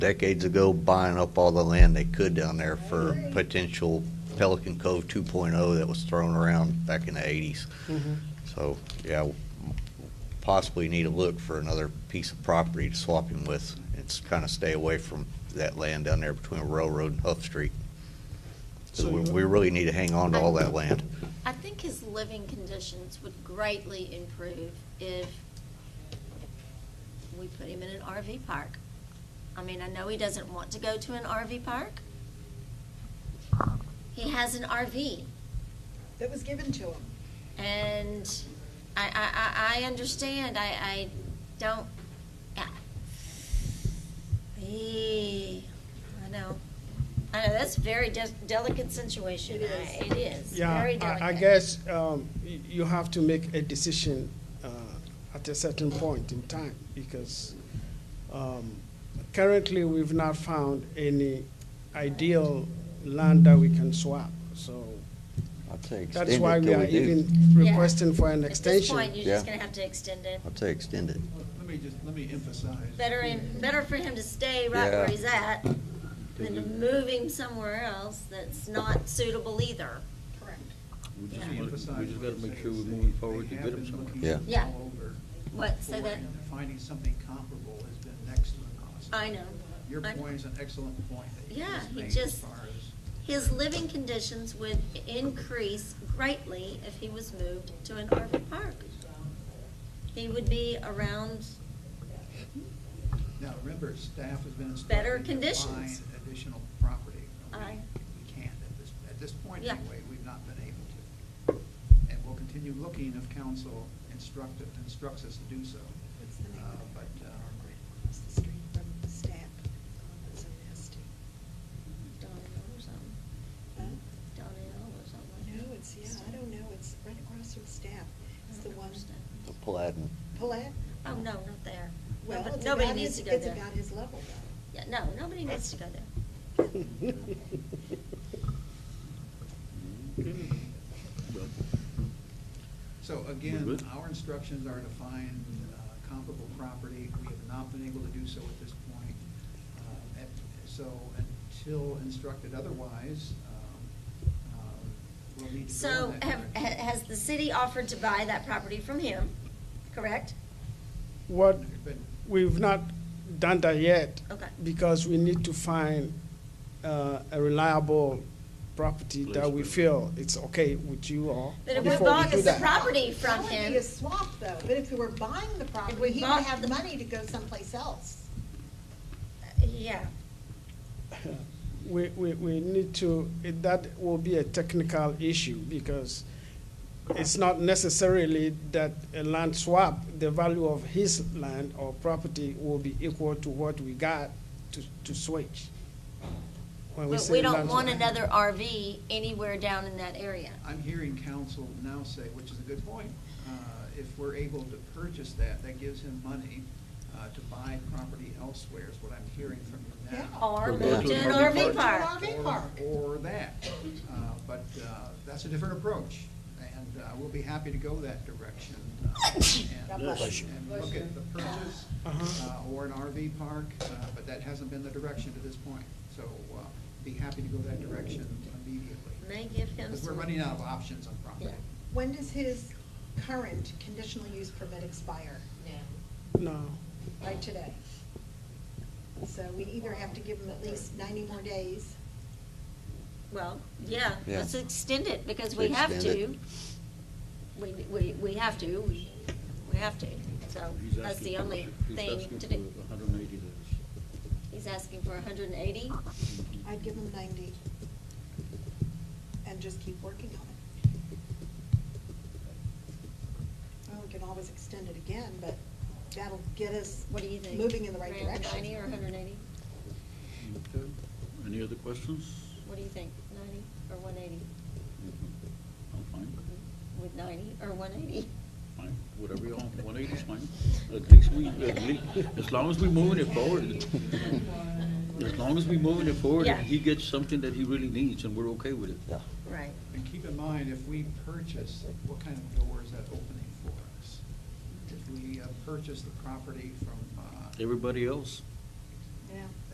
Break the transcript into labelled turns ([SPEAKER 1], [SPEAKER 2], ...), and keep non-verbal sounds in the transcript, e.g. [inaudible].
[SPEAKER 1] decades ago buying up all the land they could down there for potential Pelican Cove 2.0 that was thrown around back in the 80s.
[SPEAKER 2] Mm-hmm.
[SPEAKER 1] So, yeah, possibly need to look for another piece of property to swap him with. It's kind of stay away from that land down there between Railroad and Huff Street. So we, we really need to hang on to all that land.
[SPEAKER 3] I think his living conditions would greatly improve if we put him in an RV park. I mean, I know he doesn't want to go to an RV park. He has an RV,
[SPEAKER 4] that was given to him.
[SPEAKER 3] and I, I, I, I understand, I, I don't, yeah. Eh, I know, I know, that's very de- delicate situation.
[SPEAKER 4] It is.
[SPEAKER 3] I- It is,
[SPEAKER 5] Yeah,
[SPEAKER 3] very delicate.
[SPEAKER 5] I, I guess um, y- you have to make a decision uh, at a certain point in time because um, currently we've not found any ideal land that we can swap. So
[SPEAKER 2] I'd say extend
[SPEAKER 5] that's why
[SPEAKER 2] it
[SPEAKER 5] we
[SPEAKER 2] till
[SPEAKER 5] are
[SPEAKER 2] do.
[SPEAKER 5] even
[SPEAKER 3] Yeah.
[SPEAKER 5] requesting for an
[SPEAKER 3] At this
[SPEAKER 5] extension.
[SPEAKER 3] point, you're just
[SPEAKER 2] Yeah.
[SPEAKER 3] gonna have to extend it.
[SPEAKER 2] I'd say extend it.
[SPEAKER 6] Let me just, let me emphasize.
[SPEAKER 3] Better, in- better for him to stay right where
[SPEAKER 2] Yeah.
[SPEAKER 3] he's at than to move him somewhere else that's not suitable either.
[SPEAKER 4] Correct.
[SPEAKER 7] We
[SPEAKER 6] Let
[SPEAKER 7] just,
[SPEAKER 6] me emphasize
[SPEAKER 7] we just gotta
[SPEAKER 6] what it
[SPEAKER 7] make sure we're
[SPEAKER 6] says.
[SPEAKER 7] moving
[SPEAKER 6] They-
[SPEAKER 7] forward to
[SPEAKER 6] they
[SPEAKER 7] get
[SPEAKER 6] have
[SPEAKER 7] them
[SPEAKER 6] been
[SPEAKER 7] somewhere.
[SPEAKER 6] looking
[SPEAKER 2] Yeah.
[SPEAKER 3] Yeah.
[SPEAKER 6] all over
[SPEAKER 3] What, say
[SPEAKER 6] for
[SPEAKER 3] that,
[SPEAKER 6] it, and Finding something comparable has been next to impossible.
[SPEAKER 3] I know.
[SPEAKER 6] Your
[SPEAKER 3] I-
[SPEAKER 6] point is an excellent point that you
[SPEAKER 3] Yeah,
[SPEAKER 6] just
[SPEAKER 3] he
[SPEAKER 6] made as
[SPEAKER 3] just-
[SPEAKER 6] far as.
[SPEAKER 3] His living conditions would increase greatly if he was moved to an RV park. He would be around,
[SPEAKER 6] Now, remember, staff has been
[SPEAKER 3] Better
[SPEAKER 6] instructed to
[SPEAKER 3] conditions.
[SPEAKER 6] find additional property. We-
[SPEAKER 3] Aye.
[SPEAKER 6] We can't at this, at this point
[SPEAKER 3] Yeah.
[SPEAKER 6] anyway, we've not been able to. And we'll continue looking if council instructed, instructs us to do so.
[SPEAKER 4] What's the name
[SPEAKER 6] Uh,
[SPEAKER 4] of the
[SPEAKER 6] but,
[SPEAKER 4] program
[SPEAKER 6] uh,
[SPEAKER 4] across the street from the staff? So nasty.
[SPEAKER 3] Donnell or something,
[SPEAKER 4] Huh?
[SPEAKER 3] Donnell or something like that.
[SPEAKER 4] No, it's, yeah, I don't know, it's right across from staff. It's the one,
[SPEAKER 1] The Platten.
[SPEAKER 4] Palat,
[SPEAKER 3] Oh, no, not there.
[SPEAKER 4] well,
[SPEAKER 3] Nobody-
[SPEAKER 4] it's
[SPEAKER 3] Nobody
[SPEAKER 4] about
[SPEAKER 3] needs
[SPEAKER 4] his,
[SPEAKER 3] to go
[SPEAKER 4] it's
[SPEAKER 3] there.
[SPEAKER 4] about his level though.
[SPEAKER 3] Yeah, no, nobody needs to go there.
[SPEAKER 6] So
[SPEAKER 7] We're
[SPEAKER 6] again,
[SPEAKER 7] good.
[SPEAKER 6] our instructions are to find uh, comparable property. We have not been able to do so at this point. Uh, and So until instructed otherwise, um, um, we'll need to go
[SPEAKER 3] So
[SPEAKER 6] in that
[SPEAKER 3] have, ha-
[SPEAKER 6] direction.
[SPEAKER 3] has the city offered to buy that property from him, correct?
[SPEAKER 5] [laughs] What
[SPEAKER 6] But
[SPEAKER 5] we've not done that yet
[SPEAKER 3] Okay.
[SPEAKER 5] because we need to find uh, a reliable property that we
[SPEAKER 7] Placement.
[SPEAKER 5] feel it's okay with you all.
[SPEAKER 3] But if we
[SPEAKER 5] before
[SPEAKER 3] bought
[SPEAKER 5] do
[SPEAKER 3] the
[SPEAKER 5] that.
[SPEAKER 3] property from
[SPEAKER 4] That would
[SPEAKER 3] him,
[SPEAKER 4] be a swap though, but if we were buying the
[SPEAKER 3] we
[SPEAKER 4] property, he would
[SPEAKER 3] bought the-
[SPEAKER 4] have money to go someplace else.
[SPEAKER 3] yeah,
[SPEAKER 5] We, we, we need to, it- that will be a technical issue because it's not necessarily that a land swap, the value of his land or property will be equal to what we got to, to switch. When
[SPEAKER 3] but
[SPEAKER 5] say
[SPEAKER 3] we don't
[SPEAKER 5] land
[SPEAKER 3] want
[SPEAKER 5] swap.
[SPEAKER 3] another RV anywhere down in that area.
[SPEAKER 6] I'm hearing council now say, which is a good point, uh, if we're able to purchase that, that gives him money uh, to buy property elsewhere, is what I'm hearing from you now.
[SPEAKER 4] Yeah.
[SPEAKER 3] Or
[SPEAKER 7] Or
[SPEAKER 3] move
[SPEAKER 7] go
[SPEAKER 3] to
[SPEAKER 7] to
[SPEAKER 3] an
[SPEAKER 7] an
[SPEAKER 3] RV
[SPEAKER 7] RV
[SPEAKER 3] park.
[SPEAKER 4] RV
[SPEAKER 6] or-
[SPEAKER 4] park.
[SPEAKER 6] Or that, Uh, but uh, that's a different approach, and uh, we'll be happy to go that direction. uh,
[SPEAKER 4] God
[SPEAKER 6] and-
[SPEAKER 4] bless
[SPEAKER 6] And look at the purchase, uh, or an RV park, uh, but that hasn't been the direction to this point. So uh, be happy to go that direction immediately,
[SPEAKER 3] May give him
[SPEAKER 6] because we're
[SPEAKER 3] some.
[SPEAKER 6] running out of options on property.
[SPEAKER 3] Yeah.
[SPEAKER 4] When does his current conditional use permit expire?
[SPEAKER 5] No,
[SPEAKER 4] Right today. So we either have to give him at least ninety more days.
[SPEAKER 3] Well, yeah,
[SPEAKER 2] Yeah.
[SPEAKER 3] let's extend it because we have
[SPEAKER 2] Extend
[SPEAKER 3] to.
[SPEAKER 2] it.
[SPEAKER 3] We, we, we have to, we, we have to. So
[SPEAKER 7] He's
[SPEAKER 3] that's
[SPEAKER 7] asking
[SPEAKER 3] the
[SPEAKER 7] for-
[SPEAKER 3] only
[SPEAKER 7] He's
[SPEAKER 3] thing
[SPEAKER 7] asking
[SPEAKER 3] to
[SPEAKER 7] for
[SPEAKER 3] do.
[SPEAKER 7] 180 days.
[SPEAKER 3] He's asking for hundred and eighty.
[SPEAKER 4] I'd give him ninety. And just keep working on it. Well, we can always extend it again, but that'll get us
[SPEAKER 3] What do you think?
[SPEAKER 4] moving in the right direction.
[SPEAKER 3] Ninety or hundred and eighty?
[SPEAKER 7] Okay. Any other questions?
[SPEAKER 3] What do you think, ninety or one eighty?
[SPEAKER 7] Mm-hmm. I'm fine,
[SPEAKER 3] With ninety or one eighty?
[SPEAKER 7] fine, whatever you want, 180 is fine. At least we, at least, as long as we're moving it forward, as long as we're moving it forward,
[SPEAKER 3] Yeah.
[SPEAKER 7] and he gets something that he really needs, and we're okay with it.
[SPEAKER 3] [laughs] Right.
[SPEAKER 6] And keep in mind, if we purchase, what kind of door is that opening for us? If we uh, purchase the property from, uh,
[SPEAKER 7] Everybody else,
[SPEAKER 4] Yeah.